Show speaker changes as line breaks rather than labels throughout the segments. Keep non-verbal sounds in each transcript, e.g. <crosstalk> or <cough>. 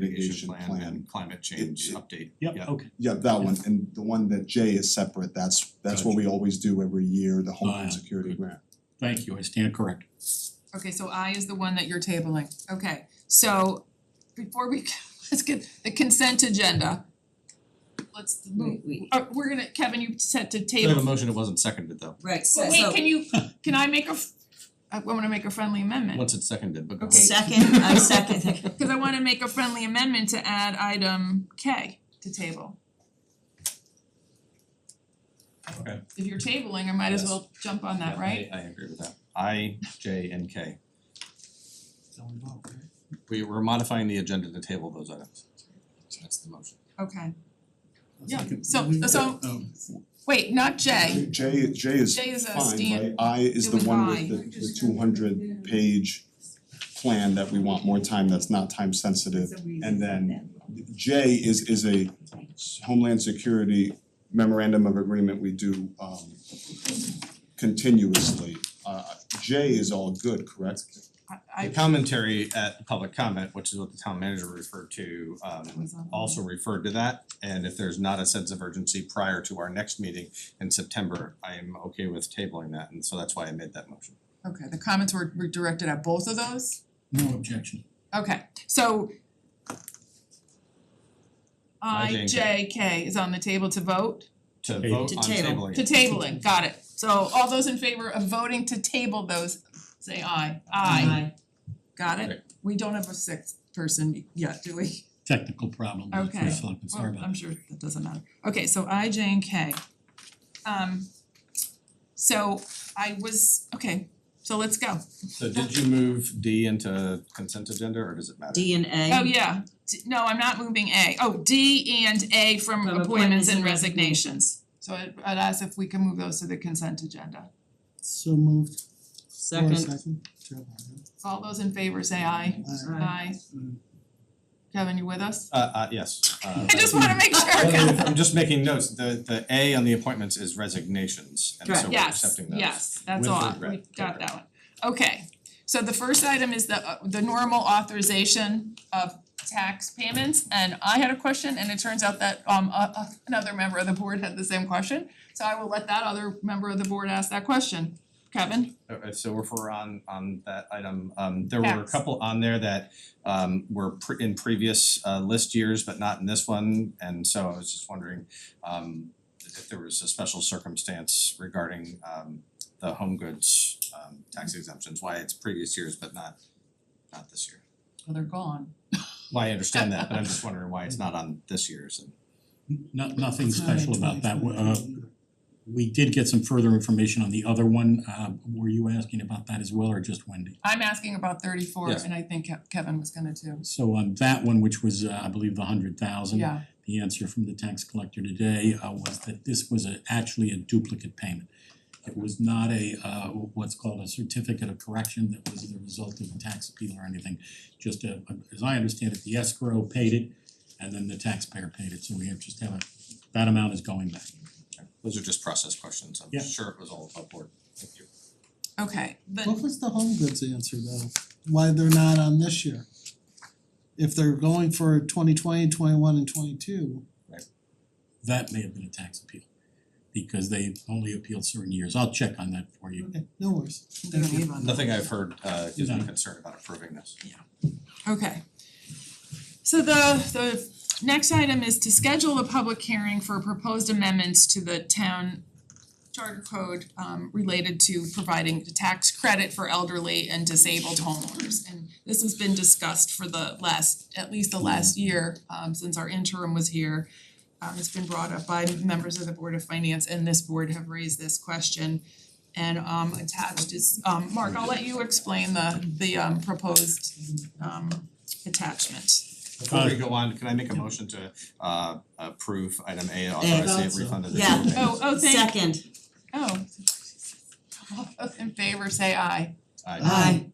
mitigation plan
plan.
and climate change update.
Yep, okay,
Yeah, that one, and the one that J is separate, that's that's what we always do every year, the Homeland
Ah,
Security
good.
Grant.
thank you, I stand corrected.
Okay, so I is the one that you're tabling, okay, so before we, <laughs> let's get the consent agenda. Let's move,
Wait, wait.
uh we're gonna, Kevin, you said to
We have a
table,
motion, it wasn't seconded though,
Right, so
but wait, can you,
<laughs>
can I make a, f- I wanna make a friendly amendment.
once it's seconded, but go
Okay.
ahead.
second, I second,
Cause I wanna make a friendly amendment to add item K to table.
Okay.
If you're tabling, I might as
Yes.
well jump on that, right?
I I agree with that. I, J and K.
It's all involved, right?
We we're modifying the agenda to table those items. So that's the motion.
Okay, Yeah,
Second.
so- so-
Um,
wait, not J,
J J is
J is a
fine,
stand,
right? I is
It
the
was
one
I.
with the the two hundred page plan that we want more time, that's not time sensitive. <laughs> And
<laughs>
then J is is a Homeland Security memorandum of agreement we do um continuously. Uh J is all good, correct?
I
The
I
commentary at public comment, which is what the town manager referred to,
that
um
was on.
also referred to that. And if there's not a sense of urgency prior to our next meeting in September, I am okay with tabling that, and so that's why I made that motion.
Okay, the comments were were directed at both of those?
No objection.
Okay, so I
IJK.
J K is on the table to vote,
To
Table.
vote
To
on
table.
tabling
to
it.
tabling, got it. So all those in favor of voting to table those, say aye. Aye, got
Right.
it? We don't have a sixth person yet, do we?
Technical problem with the
Okay.
first selectman, sorry
Well,
about
I'm
that.
sure that doesn't matter. Okay, so I, J, and K. Um so I was, okay, so let's go.
So did you move D into consent agenda, or does it matter?
D and A.
Oh, yeah, D- no, I'm not moving A. Oh, D and A from
From
appointments
appointments
and
and
resignations. So I'd I'd ask if we can move those to the consent agenda.
So moved. Laura,
Second,
Joe, aye.
All those in favor say aye.
Aye.
Aye.
Mm.
Kevin, you with us?
Uh uh yes, uh
I just wanna make sure, Kevin.
I'm just making notes, the the A on the appointments is resignations, and so we're
Yes,
accepting those.
yes, that's
With
all.
regret,
We got
correct.
that one. Okay, so the first item is the uh, the normal authorization of tax payments. And I had a question and it turns out that um a- a- another member of the board had the same question. So I will let that other member of the board ask that question. Kevin?
Okay, so if we're on on that item, um there were a
Yes.
couple on there that um were pre- in previous uh list years, but not in this one, and so I was just wondering um if there was a special circumstance regarding um the home goods um tax exemptions, why it's previous years but not not this year.
Well, Oh, they're gone.
Well, I understand that, but I'm
<laughs>
just wondering why it's not on this year's and
No- nothing
It's not
special
in
about that,
20,
uh, we did get some further information on the other one, uh, were you asking about that as well, or just Wendy?
I'm asking about thirty four
Yes.
and I think Ke- Kevin was gonna too.
So on that one, which was, uh, I believe, the hundred thousand.
Yeah,
The answer from the tax collector today uh, was that this was a- actually a duplicate payment. It was not a, uh, what's called a certificate of correction that was the result of a tax appeal or anything. Just a, as I understand it, the escrow paid it, and then the taxpayer paid it, so we have just have a, that amount is going back.
those are just process questions, I'm
Yeah.
sure it was all above board, thank you.
okay, but
What was the home goods answer though? Why they're not on this year? If they're going for 2020, 21, and twenty-two,
That may have been a tax appeal, because they only appealed certain years. I'll check on that for you.
okay, no worries.
I'm gonna leave on that.
Nothing I've heard uh gives me
No.
concern about approving this.
Okay. So the the next item is to schedule a public hearing for proposed amendments to the town charter code um related to providing a tax credit for elderly and disabled homeowners. And this has been discussed for the last, at least the last year, um since our interim was here. Um it's been brought up by members of the Board of Finance and this board have raised this question. And um attached is, um Mark, I'll let you explain the the um proposed um attachment.
Before we go on, can I make a motion to uh approve item A, authorize the refund of the
Yeah.
bill payments?
Oh, oh, thank,
second,
oh. All those in favor say aye.
Aye.
aye,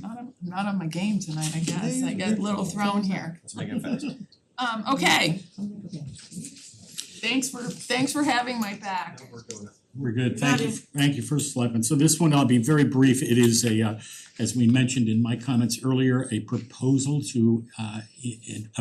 Not on, not on my game tonight, I guess, I get a little thrown here.
Let's make it fast.
Um okay, thanks for, thanks for having my back.
We're good,
Got
thank you,
it.
thank you, first selectman, so this one, I'll be very brief, it is a, uh, as we mentioned in my comments earlier, a proposal to uh i- in-